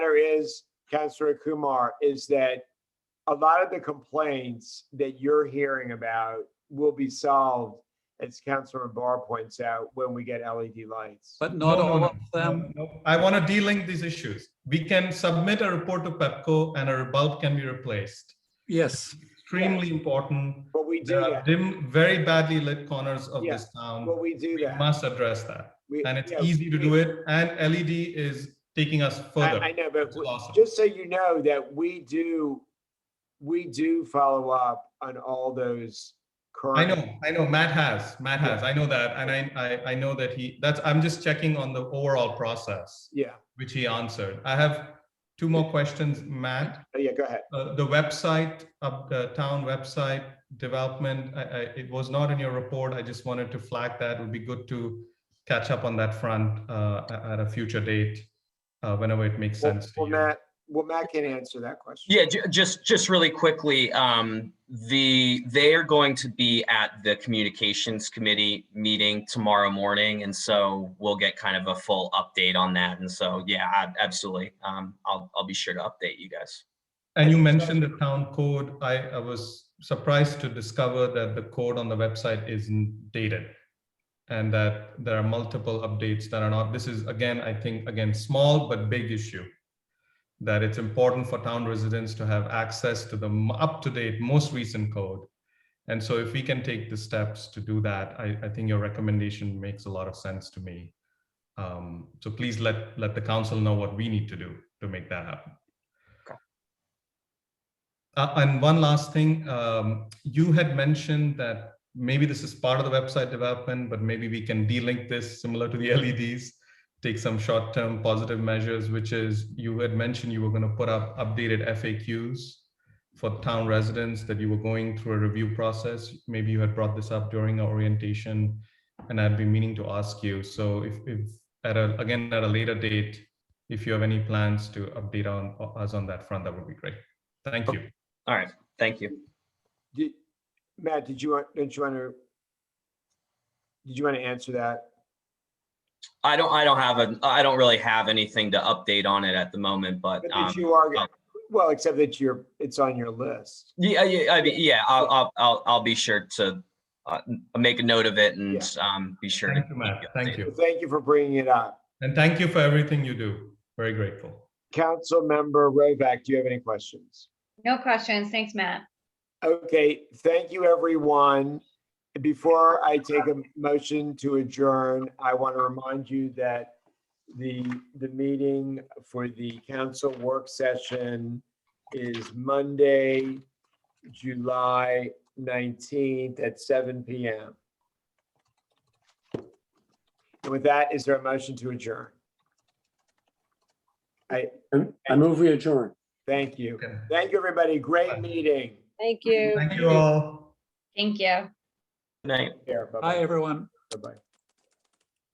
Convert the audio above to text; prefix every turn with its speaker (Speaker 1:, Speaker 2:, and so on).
Speaker 1: there is, Councilor Kumar, is that a lot of the complaints that you're hearing about will be solved, as Councilor Barr points out, when we get LED lights.
Speaker 2: But not
Speaker 3: No, no,
Speaker 2: all
Speaker 3: no,
Speaker 2: of them.
Speaker 3: no, no. I want to de-link these issues. We can submit a report to Pepco and our bulb can be replaced.
Speaker 2: Yes,
Speaker 3: Extremely important.
Speaker 1: But we do
Speaker 3: There are
Speaker 1: that,
Speaker 3: dim, very badly lit corners of
Speaker 1: Yeah,
Speaker 3: this town.
Speaker 1: but we do
Speaker 3: We
Speaker 1: that.
Speaker 3: must address that.
Speaker 1: We-
Speaker 3: And it's
Speaker 1: yeah,
Speaker 3: easy to
Speaker 1: we-
Speaker 3: do it. And LED is taking us
Speaker 1: I,
Speaker 3: further.
Speaker 1: I know, but
Speaker 3: It's awesome.
Speaker 1: just so you know that we do, we do follow up on all those current.
Speaker 3: I know, I know, Matt has, Matt has, I know that. And I, I, I know that he, that's, I'm just checking on the overall process,
Speaker 1: Yeah,
Speaker 3: which he answered. I have two more questions, Matt.
Speaker 1: Oh, yeah, go ahead.
Speaker 3: Uh, the website, up the town website development, I, I, it was not in your report. I just wanted to flag that. It would be good to catch up on that front uh, a- at a future date, uh, whenever it makes
Speaker 1: Well,
Speaker 3: sense. to
Speaker 1: well,
Speaker 3: you.
Speaker 1: Matt, well, Matt can answer that question.
Speaker 4: Yeah, ju- just, just really quickly, um, the, they are going to be at the communications committee meeting tomorrow morning. And so we'll get kind of a full update on that. And so, yeah, ab- absolutely. Um, I'll, I'll be sure to update you guys.
Speaker 3: And you mentioned the town code. I, I was surprised to discover that the code on the website isn't dated. And that there are multiple updates that are not, this is again, I think, again, small but big issue. That it's important for town residents to have access to the m- up-to-date, most recent code. And so if we can take the steps to do that, I, I think your recommendation makes a lot of sense to me. Um, so please let, let the council know what we need to do to make that happen. Uh, and one last thing, um, you had mentioned that maybe this is part of the website development, but maybe we can de-link this similar to the LEDs, take some short-term positive measures, which is you had mentioned you were going to put up updated FAQs for town residents that you were going through a review process. Maybe you had brought this up during our orientation, and I'd be meaning to ask you. So if, if at a, again at a later date, if you have any plans to update on us on that front, that would be great. Thank you.
Speaker 4: All right, thank you.
Speaker 1: Did, Matt, did you, want? didn't you want to? Did you want to answer that?
Speaker 4: I don't, I don't have a, I don't really have anything to update on it at the moment, but,
Speaker 1: But
Speaker 4: um,
Speaker 1: if you are,
Speaker 4: um,
Speaker 1: well, except that you're, it's on your list.
Speaker 4: yeah, yeah, I mean, yeah, I'll, I'll, I'll, I'll be sure to, uh, make a note of it and, um, be sure to.
Speaker 3: Thank you, Matt. Thank you.
Speaker 1: Thank you for bringing it up.
Speaker 3: And thank you for everything you do. Very grateful.
Speaker 1: Councilmember Rovak, do you have any questions?
Speaker 5: No questions. Thanks, Matt.
Speaker 1: Okay, thank you, everyone. Before I take a motion to adjourn, I want to remind you that the, the meeting for the council work session is Monday, July 19th at seven PM. And with that, is there a motion to adjourn?
Speaker 6: I move we adjourn.
Speaker 1: Thank you.
Speaker 3: Okay.
Speaker 1: Thank you, everybody. Great meeting.
Speaker 7: Thank you.
Speaker 3: Thank you all.
Speaker 5: Thank you.
Speaker 4: Good night.
Speaker 1: Here,
Speaker 2: hi,
Speaker 1: bye-bye.
Speaker 2: everyone.
Speaker 1: Bye-bye.